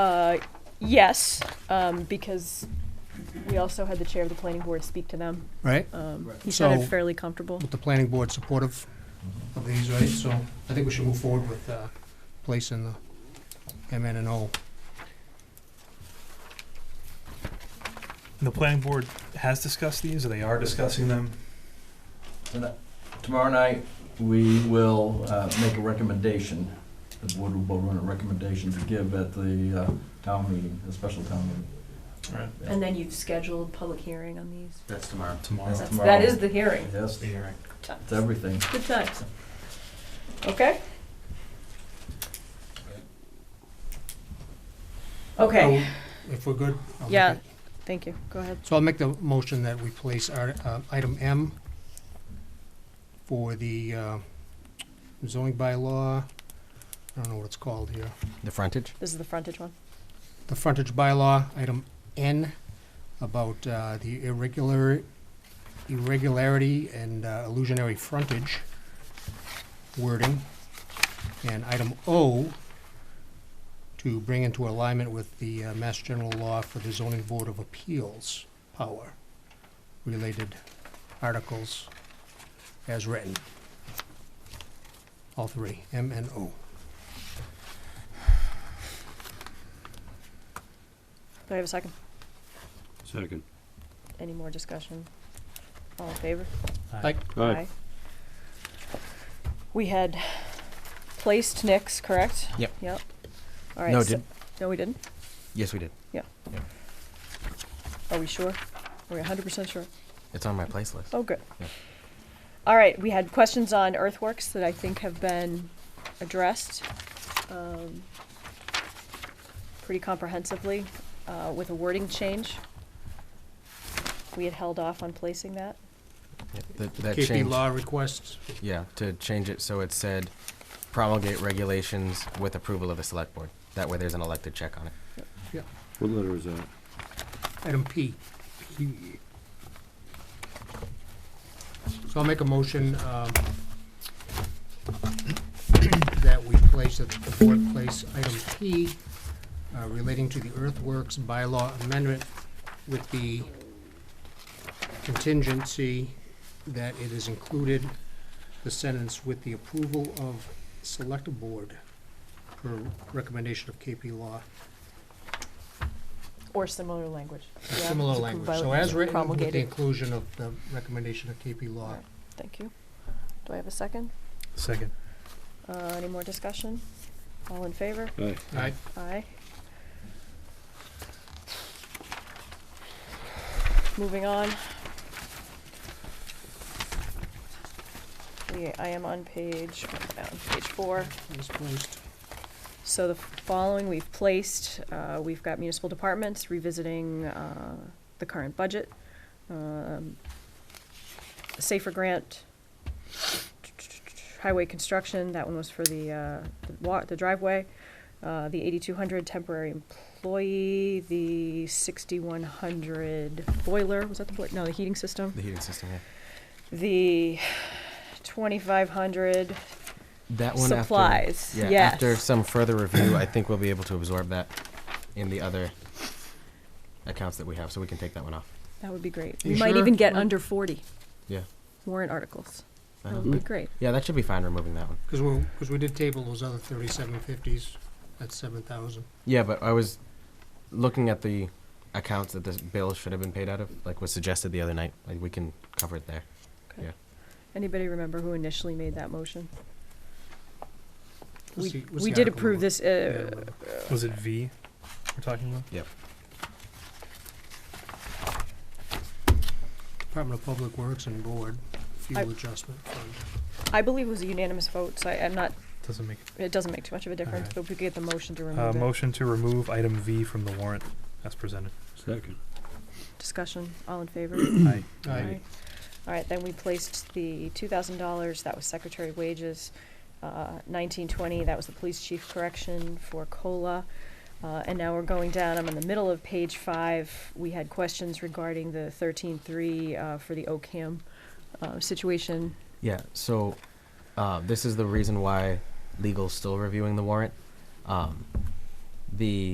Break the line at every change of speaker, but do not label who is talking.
Uh, Yes, um, because we also had the chair of the planning board speak to them.
right?
Um, he
So-
sounded fairly comfortable.
With the planning board supportive of these, right? So I think we should move forward with uh, placing the MN and O.
And The planning board has discussed these, or they are discussing them.
Tomorrow night, we will uh, make a recommendation, the board will run a recommendation to give at the uh, town meeting, the special town meeting.
And then you've scheduled public hearing on these.
That's Uh, tomorrow.
Tomorrow.
That's tomorrow.
That is the hearing.
Yes,
The hearing.
it's everything.
Good times. Okay? Okay,
If we're good? I'll make
Yeah.
it.
thank you. Go ahead.
So I'll make the motion that we place our, uh, item M for the uh, zoning bylaw, I don't know what it's called here,
The frontage?
This is the frontage one.
the frontage bylaw, item N, about uh, the irregular, irregularity and uh, illusionary frontage wording. And item O, to bring into alignment with the uh, Mass General Law for the Zoning Board of Appeals power, related articles as written. All three, M and O.
Do I have a second?
Second.
Any more discussion? All in favor?
Like,
Aye.
We had placed Nick's, correct?
Yep.
Yep. All right.
No,
so-
did,
No, we didn't?
yes, we did.
Are we sure? Are we hundred percent sure?
It's on my place list.
Oh, good.
Yeah.
All right, we had questions on earthworks that I think have been addressed um, pretty comprehensively uh, with a wording change. We had held off on placing that.
Yeah, That, that
KP
changed,
Law requests,
yeah, to change it so it said promulgate regulations with approval of the select board. That way there's an elected check on it.
What letter is that?
Item P. P. So I'll make a motion um, that we place, that the board place item P uh, relating to the earthworks bylaw amendment with the contingency that it is included, the sentence with the approval of select board per recommendation of KP Law.
Or similar language. Yeah,
Similar
it's a
language,
convi-
so as written, with the
promulgated.
inclusion of the recommendation of KP Law.
Right. Thank you. Do I have a second?
Second.
Uh, Any more discussion? All in favor?
Aye.
Aye.
Aye. Moving on. We, I am on page, on page four.
Misplaced.
So the following we've placed, uh, we've got municipal departments revisiting, uh, the current budget. um, Safer grant, highway construction, that one was for the, uh, the wa- the driveway. Uh, the eighty-two hundred temporary employee, the sixty-one hundred boiler, was that the boiler? No, the heating system.
The heating system, yeah.
The twenty-five hundred
That one after.
supplies,
Yeah,
yes.
after some further review, I think we'll be able to absorb that in the other accounts that we have, so we can take that one off.
That would be great.
You
We might
sure?
even get
Well-
under forty.
Yeah.
Warrant articles. That
Uh-huh.
would be great.
Yeah, that should be fine removing that one.
Because we, because we did table those other thirty-seven fifties, that's seven thousand.
Yeah, but I was looking at the accounts that this bill should have been paid out of, like was suggested the other night. Like we can cover it there.
Anybody remember who initially made that motion?
Let's see-
We,
what's
we
the
did
article
approve
number?
this,
Yeah,
uh,
remember.
Was it V we're talking about?
Department of Public Works and Board,
I-
fuel adjustment fund.
I believe it was a unanimous vote, so I, I'm not,
Doesn't make
it doesn't make too much of a difference,
right.
but we get the motion to
it. Uh,
remove it.
motion to remove item V from the warrant as presented.
Second.
Discussion, all in favor?
Aye.
Aye.
All right, then we placed the two thousand dollars, that was secretary wages, uh, nineteen twenty, that was the police chief correction for COLA. Uh, and now we're going down, I'm in the middle of page five, we had questions regarding the thirteen-three, uh, for the OCAM, uh, situation.
Yeah, so uh, this is the reason why legal's still reviewing the warrant. Um, the